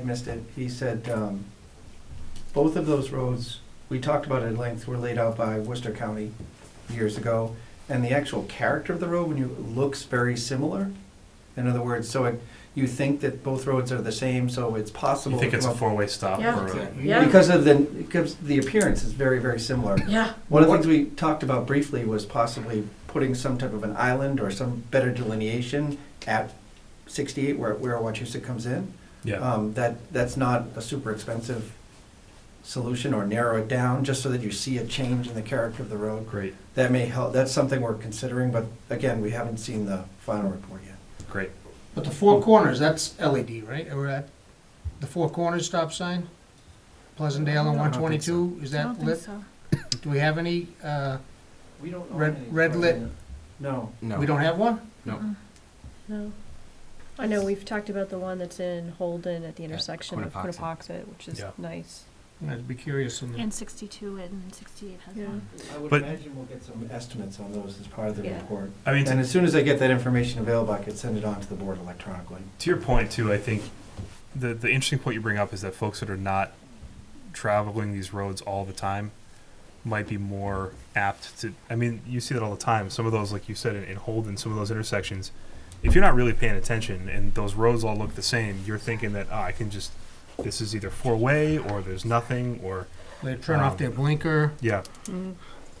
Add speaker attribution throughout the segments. Speaker 1: I missed it. He said, um, both of those roads, we talked about at length, were laid out by Worcester County years ago. And the actual character of the road, when you, looks very similar. In other words, so it, you think that both roads are the same, so it's possible.
Speaker 2: You think
Speaker 1: to
Speaker 2: it's
Speaker 1: come
Speaker 2: a
Speaker 1: up-
Speaker 2: four-way stop?
Speaker 3: Yeah.
Speaker 2: or-
Speaker 3: Yeah.
Speaker 1: Because of the, because the appearance is very, very similar.
Speaker 3: Yeah,
Speaker 1: One of the things we talked about briefly was possibly putting some type of an island or some better delineation at sixty-eight where, where Wachusett comes in.
Speaker 2: Yeah,
Speaker 1: Um, that, that's not a super expensive solution or narrow it down, just so that you see a change in the character of the road.
Speaker 2: great,
Speaker 1: That may help, that's something we're considering, but again, we haven't seen the final report yet.
Speaker 2: great.
Speaker 4: But the four corners, that's LED, right? Or that- the four corners stop sign? Pleasantdale
Speaker 2: I
Speaker 4: and
Speaker 2: don't
Speaker 4: one
Speaker 2: think
Speaker 4: twenty-two, is
Speaker 3: I don't
Speaker 4: that
Speaker 3: think
Speaker 4: lit?
Speaker 3: so.
Speaker 4: Do we have any, uh,
Speaker 1: We don't.
Speaker 4: own Red- any red lit.
Speaker 1: No.
Speaker 4: we don't have one?
Speaker 3: No. I know, we've talked about the one that's in Holden at the intersection of
Speaker 5: Quinnipoxet.
Speaker 3: Quinipoxet, which is
Speaker 2: Yeah.
Speaker 3: nice.
Speaker 4: I'd be curious on the,
Speaker 6: And 62 and 68 has
Speaker 3: Yeah.
Speaker 6: one.
Speaker 1: I would
Speaker 2: But-
Speaker 1: imagine we'll get some estimates on those as part of the
Speaker 3: Yeah.
Speaker 1: report.
Speaker 2: I mean,
Speaker 1: And
Speaker 2: to,
Speaker 1: as soon as I get that information available, I could send it on to the board electronically.
Speaker 2: to your point too, I think the the interesting point you bring up is that folks that are not traveling these roads all the time might be more apt to. I mean, you see that all the time. Some of those, like you said, in, in Holden, some of those intersections, if you're not really paying attention and those roads all look the same, you're thinking that oh, I can just this is either four-way or there's nothing or
Speaker 4: they turn off their blinker.
Speaker 2: yeah.
Speaker 3: Mm,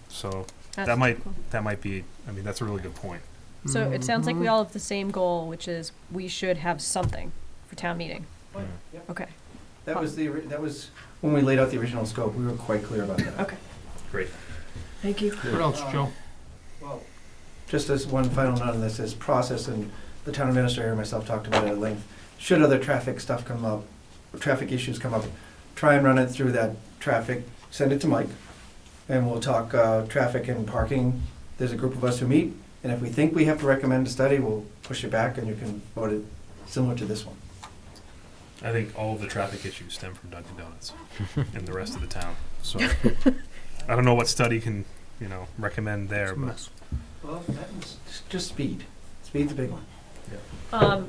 Speaker 2: So
Speaker 3: that's
Speaker 2: That might-
Speaker 3: cool.
Speaker 2: that might be. I mean, that's a really good point.
Speaker 3: So it sounds like we
Speaker 4: Mhm.
Speaker 3: all have the same goal, which is we should have something for town meeting.
Speaker 2: Yeah.
Speaker 3: Okay,
Speaker 1: That was the, ori- that was, when we laid out the original scope, we were quite clear about that.
Speaker 3: okay.
Speaker 2: Great.
Speaker 3: Thank you.
Speaker 4: What else, Joe?
Speaker 1: Well, Just as one final note on this, is process, and the town administrator and myself talked about it at length. Should other traffic stuff come up, traffic issues come up, try and run it through that traffic, send it to Mike, and we'll talk, uh, traffic and parking. There's a group of us who meet, and if we think we have to recommend a study, we'll push it back, and you can vote it similar to this one.
Speaker 2: I think all of the traffic issues stem from Dunkin' Donuts and the rest of the town. So I don't know what study can you know recommend there,
Speaker 4: It's a
Speaker 2: but
Speaker 4: mess.
Speaker 1: Well, Just speed. Speed's a big one.
Speaker 3: Um,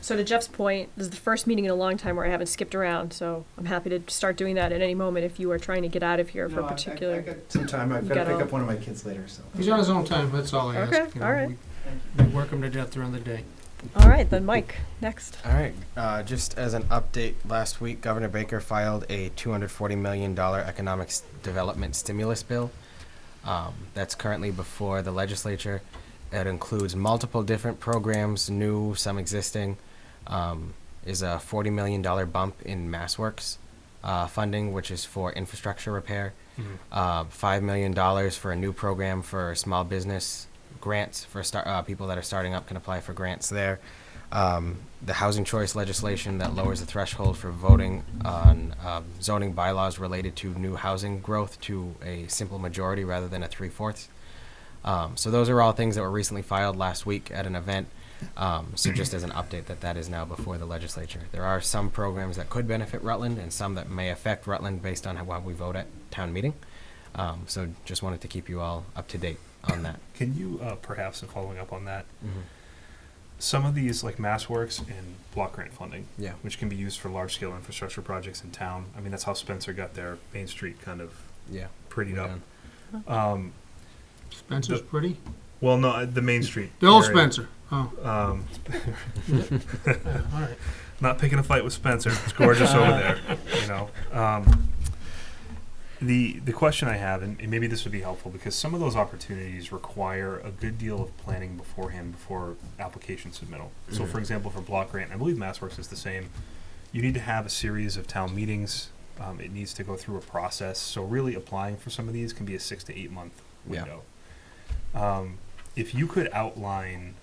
Speaker 3: so to Jeff's point, this is the first meeting in a long time where I haven't skipped around, so I'm happy to start doing that at any moment if you are trying to get out of here for
Speaker 1: No, I-
Speaker 3: a
Speaker 1: I- I
Speaker 3: particular.
Speaker 1: got Some time, I've
Speaker 3: You
Speaker 1: gotta
Speaker 3: got
Speaker 1: pick
Speaker 3: all-
Speaker 1: up one of my kids later, so.
Speaker 4: He's on his own time, that's all I ask.
Speaker 3: Okay,
Speaker 4: you know,
Speaker 3: all right.
Speaker 4: We we work him to death during the day.
Speaker 3: All right, then Mike, next.
Speaker 5: All right. Uh, just as an update, last week Governor Baker filed a $240 million economic s- development stimulus bill. Um, that's currently before the legislature. It includes multiple different programs, new, some existing. Um, is a $40 million bump in MassWorks uh, funding, which is for infrastructure repair.
Speaker 2: Mhm.
Speaker 5: Uh, $5 million for a new program for small business grants for start, uh, people that are starting up can apply for grants there. Um, the housing choice legislation that lowers the threshold for voting on um, zoning bylaws related to new housing growth to a simple majority rather than a three fourths. Um, so those are all things that were recently filed last week at an event. Um, so just as an update that that is now before the legislature. There are some programs that could benefit Rutland and some that may affect Rutland based on how how we vote at town meeting. Um, so just wanted to keep you all up to date on that.
Speaker 2: can you uh, perhaps in following up on that,
Speaker 5: Mm-hmm.
Speaker 2: some of these like MassWorks and block grant funding,
Speaker 5: Yeah.
Speaker 2: which can be used for large scale infrastructure projects in town. I mean, that's how Spencer got their Main Street kind of
Speaker 5: Yeah.
Speaker 2: prettied
Speaker 5: we're
Speaker 2: up.
Speaker 5: done.
Speaker 2: Um,
Speaker 4: Spencer's pretty.
Speaker 2: well, no, uh, the Main Street.
Speaker 4: Bill
Speaker 2: area.
Speaker 4: Spencer, oh,
Speaker 2: Um,
Speaker 4: yeah, all right.
Speaker 2: not picking a fight with Spencer. It's gorgeous over there, you know. Um, the the question I have, and, and maybe this would be helpful because some of those opportunities require a good deal of planning beforehand before application submittal. So, for
Speaker 5: Mhm.
Speaker 2: example, for block grant, I believe MassWorks is the same. You need to have a series of town meetings. Um, it needs to go through a process. So, really, applying for some of these can be a six to eight month
Speaker 5: Yeah.
Speaker 2: window. Um, if you could outline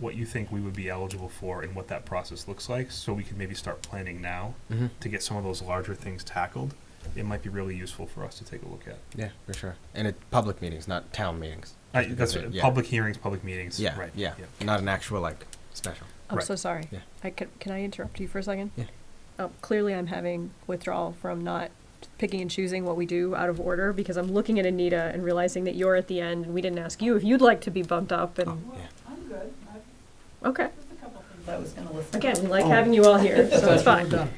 Speaker 2: what you think we would be eligible for and what that process looks like, so we could maybe start planning now
Speaker 5: Mhm.
Speaker 2: to get some of those larger things tackled, it might be really useful for us to take a look at.
Speaker 5: Yeah, for sure. And it public meetings, not town meetings.
Speaker 2: I, that's
Speaker 5: Yeah.
Speaker 2: what- public hearings, public meetings.
Speaker 5: Yeah,
Speaker 2: right.
Speaker 5: yeah. Not an actual like special.
Speaker 3: I'm
Speaker 2: Right.
Speaker 3: Oh, so sorry.
Speaker 5: Yeah.
Speaker 3: I can, can I interrupt you for a second?
Speaker 5: Yeah.
Speaker 3: Um, clearly, I'm having withdrawal from not picking and choosing what we do out of order because I'm looking at Anita and realizing that you're at the Oh, end and we didn't ask you if you'd like to be bumped up and,
Speaker 5: Yeah.
Speaker 3: okay.
Speaker 7: I was gonna listen.
Speaker 3: Again, we like having you all here, so it's fine.
Speaker 4: Done.